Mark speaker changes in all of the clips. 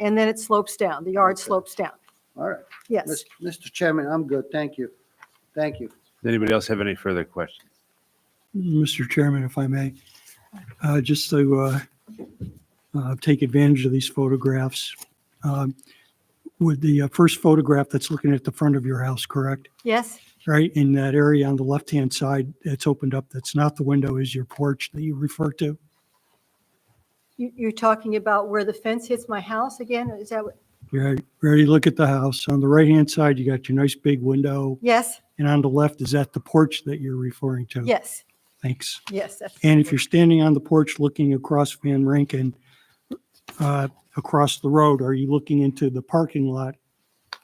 Speaker 1: and then it slopes down, the yard
Speaker 2: Okay.
Speaker 1: slopes down.
Speaker 2: All right.
Speaker 1: Yes.
Speaker 2: Mis- Mr. Chairman, I'm good. Thank you. Thank you.
Speaker 3: Does anybody else have any further questions?
Speaker 4: Mr. Chairman, if I may, uh, just to uh, uh, take advantage of these photographs. um, With the uh, first photograph that's looking at the front of your house, correct?
Speaker 1: Yes,
Speaker 4: Right, in that area on the left-hand side that's opened up, that's not the window, is your porch that you refer to?
Speaker 1: you, you're talking about where the fence hits my house again, is that, what-
Speaker 4: You're ready to look at the house. On the right-hand side, you got your nice big window,
Speaker 1: yes,
Speaker 4: and on the left, is that the porch that you're referring to?
Speaker 1: yes,
Speaker 4: Thanks.
Speaker 1: yes. that's-
Speaker 4: And if you're standing on the porch looking across Van Rankin, uh, across the road, are you looking into the parking lot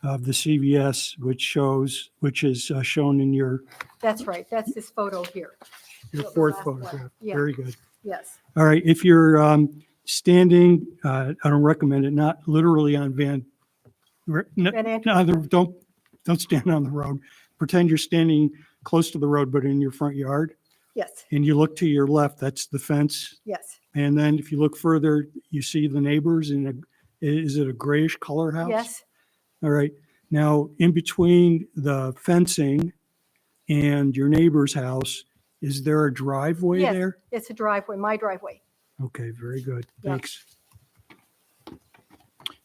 Speaker 4: of the CVS, which shows, which is uh, shown in your,
Speaker 1: That's right, that's this photo here,
Speaker 4: your
Speaker 1: The
Speaker 4: fourth
Speaker 1: last one,
Speaker 4: photograph?
Speaker 1: yeah.
Speaker 4: Very good.
Speaker 1: yes.
Speaker 4: All right, if you're um, standing, uh, I don't recommend it, not literally on Van, r- n-
Speaker 1: Van Antwerp.
Speaker 4: no, there- don't, don't stand on the road. Pretend you're standing close to the road, but in your front yard,
Speaker 1: Yes,
Speaker 4: and you look to your left, that's the fence
Speaker 1: yes,
Speaker 4: And then if you look further, you see the neighbors in a, is it a grayish color house?
Speaker 1: yes,
Speaker 4: All right. Now, in between the fencing and your neighbor's house, is there a driveway
Speaker 1: Yes.
Speaker 4: there?
Speaker 1: it's a driveway, my driveway.
Speaker 4: Okay, very good.
Speaker 1: Yeah.
Speaker 4: Thanks.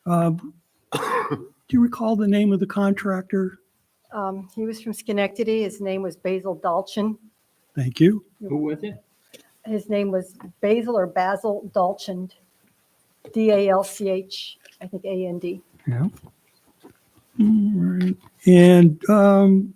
Speaker 4: Um, Do you recall the name of the contractor?
Speaker 1: Um, He was from Schenectady, his name was Basil Dalchin.
Speaker 4: Thank you.
Speaker 5: Who was it?
Speaker 1: His name was Basil or Basil Dalchand, D-A-L-C-H, I think A-N-D.
Speaker 4: Yeah. All right. And um,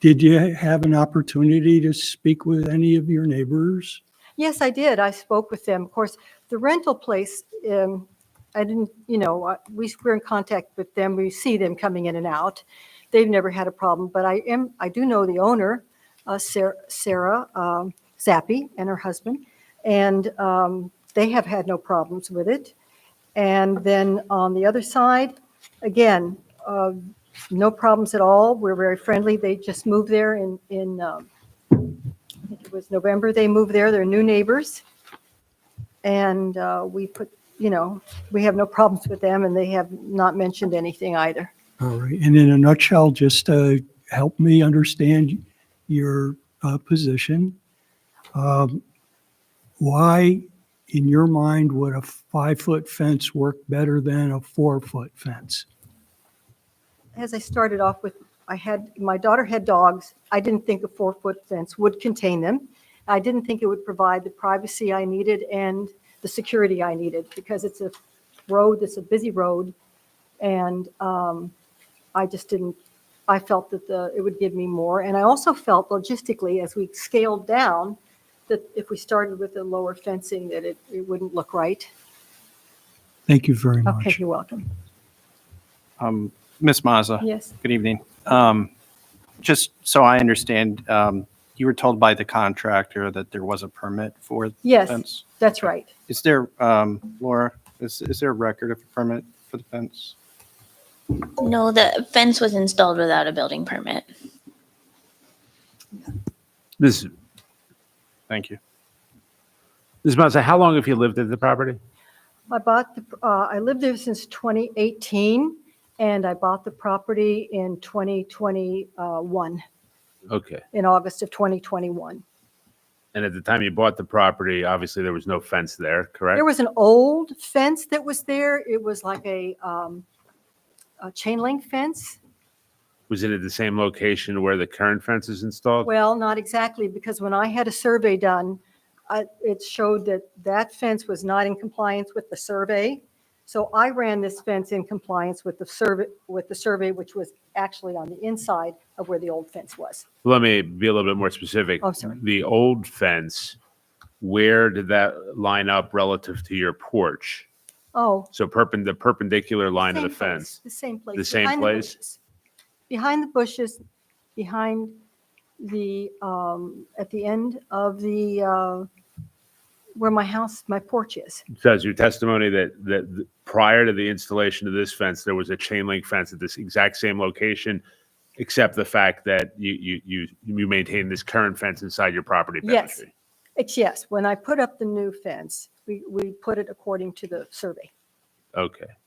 Speaker 4: did you have an opportunity to speak with any of your neighbors?
Speaker 1: Yes, I did. I spoke with them. Of course, the rental place, um, I didn't, you know, uh, we, we're in contact with them. We see them coming in and out. They've never had a problem, but I am, I do know the owner, uh, Sarah, Sarah, um, Zappi and her husband. And, um, they have had no problems with it. And then on the other side, again, uh, no problems at all. We're very friendly. They just moved there in, in, um, I think it was November, they moved there, they're new neighbors. And uh, we put, you know, we have no problems with them, and they have not mentioned anything either.
Speaker 4: All right, and in a nutshell, just uh help me understand your uh, position. Um, Why, in your mind, would a five-foot fence work better than a four-foot fence?
Speaker 1: As I started off with, I had, my daughter had dogs. I didn't think a four-foot fence would contain them. I didn't think it would provide the privacy I needed and the security I needed, because it's a road, it's a busy road. And um, I just didn't, I felt that the, it would give me more. And I also felt logistically, as we scaled down, that if we started with the lower fencing, that it, it wouldn't look right.
Speaker 4: Thank you very
Speaker 1: Okay,
Speaker 4: much.
Speaker 1: you're welcome.
Speaker 5: Um, Ms. Mazza.
Speaker 1: Yes,
Speaker 5: Good evening. Um, just so I understand, um, you were told by the contractor that there was a permit for the
Speaker 1: Yes.
Speaker 5: fence?
Speaker 1: that's right.
Speaker 5: Is there, um, Laura, is, is there a record of a permit for the fence?
Speaker 6: No, the fence was installed without a building permit.
Speaker 3: This,
Speaker 5: Thank you.
Speaker 3: Ms. Mazza, how long have you lived at the property?
Speaker 1: I bought, the uh, I lived there since 2018, and I bought the property in 2021,
Speaker 3: Okay.
Speaker 1: in August of 2021.
Speaker 3: And at the time you bought the property, obviously there was no fence there, correct?
Speaker 1: There was an old fence that was there. It was like a um, a chain link fence.
Speaker 3: Was it at the same location where the current fence is installed?
Speaker 1: Well, not exactly, because when I had a survey done, I- it showed that that fence was not in compliance with the survey. So I ran this fence in compliance with the survey, with the survey, which was actually on the inside of where the old fence was.
Speaker 3: Let me be a little bit more specific.
Speaker 1: Oh, sorry.
Speaker 3: The old fence, where did that line up relative to your porch?
Speaker 1: Oh,
Speaker 3: So perpend, the perpendicular line of the
Speaker 1: Same place,
Speaker 3: fence.
Speaker 1: The same place.
Speaker 3: same
Speaker 1: behind
Speaker 3: place?
Speaker 1: bushes. Behind the bushes, behind the, um, at the end of the, uh, where my house, my porch is.
Speaker 3: Says your testimony that, that th- prior to the installation of this fence, there was a chain link fence at this exact same location, except the fact that you, you, you, you maintain this current fence inside your property
Speaker 1: Yes.
Speaker 3: boundary.
Speaker 1: It's yes, when I put up the new fence, we, we put it according to the survey.
Speaker 3: Okay.